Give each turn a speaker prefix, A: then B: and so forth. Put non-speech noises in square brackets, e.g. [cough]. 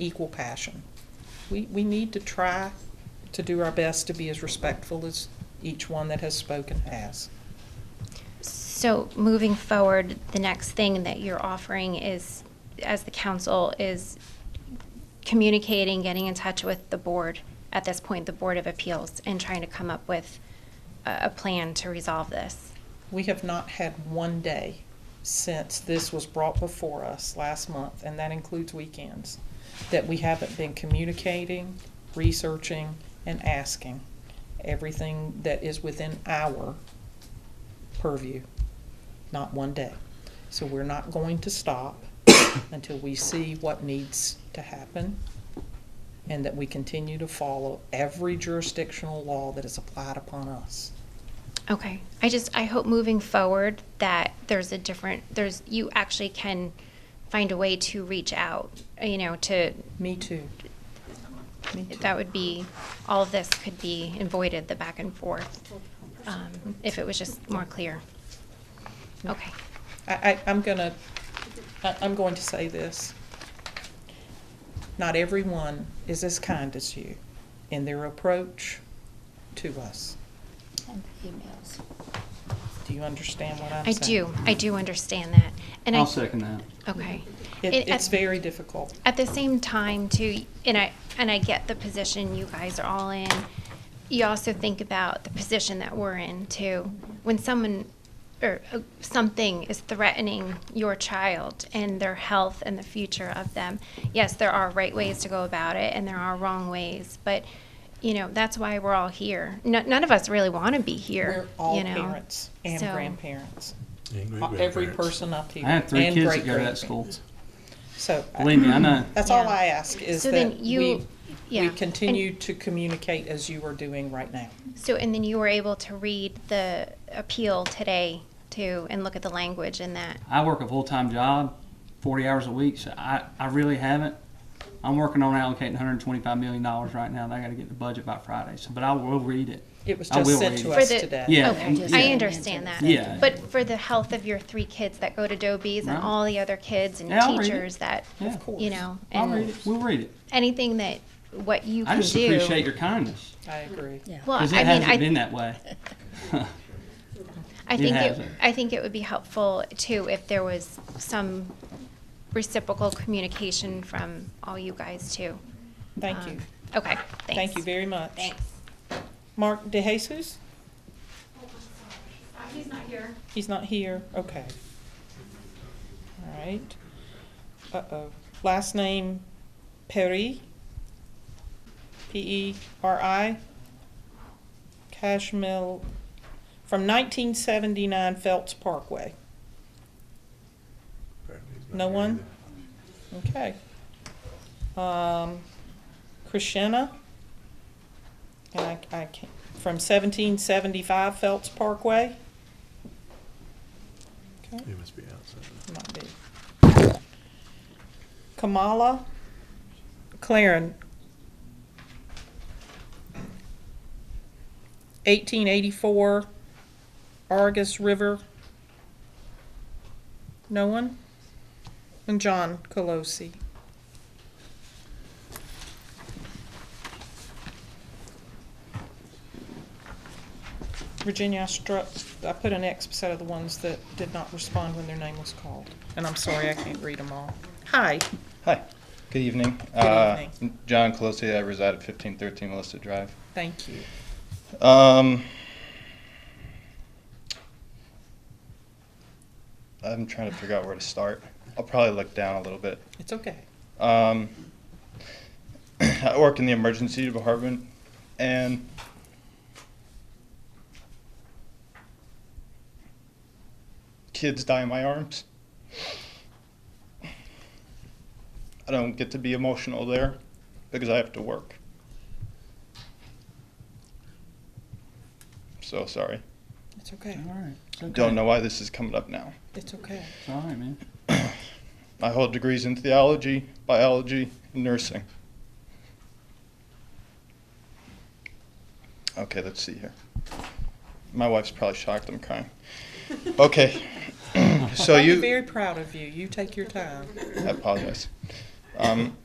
A: equal passion. We, we need to try to do our best to be as respectful as each one that has spoken has.
B: So moving forward, the next thing that you're offering is, as the council, is communicating, getting in touch with the board, at this point, the Board of Appeals, and trying to come up with a, a plan to resolve this.
A: We have not had one day since this was brought before us last month, and that includes weekends, that we haven't been communicating, researching, and asking everything that is within our purview. Not one day. So we're not going to stop [coughs] until we see what needs to happen and that we continue to follow every jurisdictional law that is applied upon us.
B: Okay, I just, I hope moving forward that there's a different, there's, you actually can find a way to reach out, you know, to,
A: Me too. Me too.
B: that would be, all of this could be avoided, the back and forth, um, if it was just more clear. Okay,
A: I, I, I'm gonna, I, I'm going to say this. Not everyone is as kind as you in their approach to us.
C: And the emails.
A: Do you understand what I'm
B: I
A: saying?
B: do, I do understand that, and I.
D: I'll second that.
B: Okay.
A: It,
B: It-
A: it's
B: at-
A: very difficult.
B: At the same time, too, and I, and I get the position you guys are all in. You also think about the position that we're in, too. When someone or uh, something is threatening your child and their health and the future of them, yes, there are right ways to go about it and there are wrong ways, but, you know, that's why we're all here. No, none of us really want to be
A: We're
B: here,
A: all
B: you know.
A: parents and
B: So-
A: grandparents.
E: And
A: Uh, Every
E: grandparents.
A: person up here.
D: I had three
A: and
D: kids that go to that
A: great-grandparents.
D: school.
A: So, I-
D: Believe me, I know.
A: that's all
B: Yeah.
A: I ask is
B: So
A: that
B: then you-
A: we,
B: yeah,
A: we
B: and-
A: continue to communicate as you are doing right now.
B: So, and then you were able to read the appeal today too, and look at the language in that.
D: I work a full-time job, 40 hours a week, so I, I really haven't. I'm working on allocating 125 million dollars right now, and I got to get the budget by Friday. So, but I will read it.
A: It was
D: I will
A: just sent
D: read
A: to
D: it.
A: us
B: For the-
A: today.
D: Yeah.
B: Okay,
D: Just
B: I
D: the
B: understand that.
C: answer.
D: Yeah.
B: But for the health of your three kids that go to Dobies and
D: Right.
B: all the other kids and
D: Yeah, I'll read it.
B: teachers that,
D: Yeah,
A: Of course.
B: you know,
D: I'll read
B: and
D: it. We'll read it.
B: anything that, what you
D: I
B: can
D: just appreciate
B: do.
D: your kindness
A: I agree.
C: Yeah.
B: Well, I
D: because it
B: mean,
D: hasn't
B: I,
D: been that way. [laughs]
B: I
D: It
B: think it,
D: hasn't.
B: I think it would be helpful too if there was some reciprocal communication from all you guys too.
A: Thank
B: Um,
A: you.
B: Okay, thanks.
A: Thank you very much.
B: Thanks.
A: Mark DeJesus? He's not here. He's not here, okay. All right. Uh-oh. Last name Perry? E P-E-R-I? Cashmill, from 1979 Phelps Parkway.
E: Apparently he's not
A: No
E: here
A: one?
E: either.
A: Okay. Um, Krishna, and I, I can't, from seventeen seventy-five Phelps Parkway. Okay,
E: He must be outside.
A: might be. Kamala Claren. Eighteen eighty-four Argus River. No one? And John Colosi. Virginia, I struck, I put an X beside of the ones that did not respond when their name was called. And I'm sorry, I can't read them all. Hi.
F: Hi, good evening. Uh,
A: evening.
F: John Colosi, I reside at fifteen thirteen Melissa Drive.
A: Thank you.
F: Um, I'm trying to figure out where to start. I'll probably look down a little bit.
A: It's okay.
F: Um, [clears throat] I work in the emergency department, and kids die in my arms. I don't get to be emotional there because I have to work. So sorry.
A: It's okay.
D: All right. It's okay.
F: Don't know why this is coming up now.
A: It's okay.
D: It's all right, man.
F: I hold degrees in theology, biology, and nursing. Okay, let's see here. My wife's probably shocked I'm crying. Okay, [clears throat] so
A: I'm
F: you.
A: very proud of you. You take your time.
F: I apologize. Um,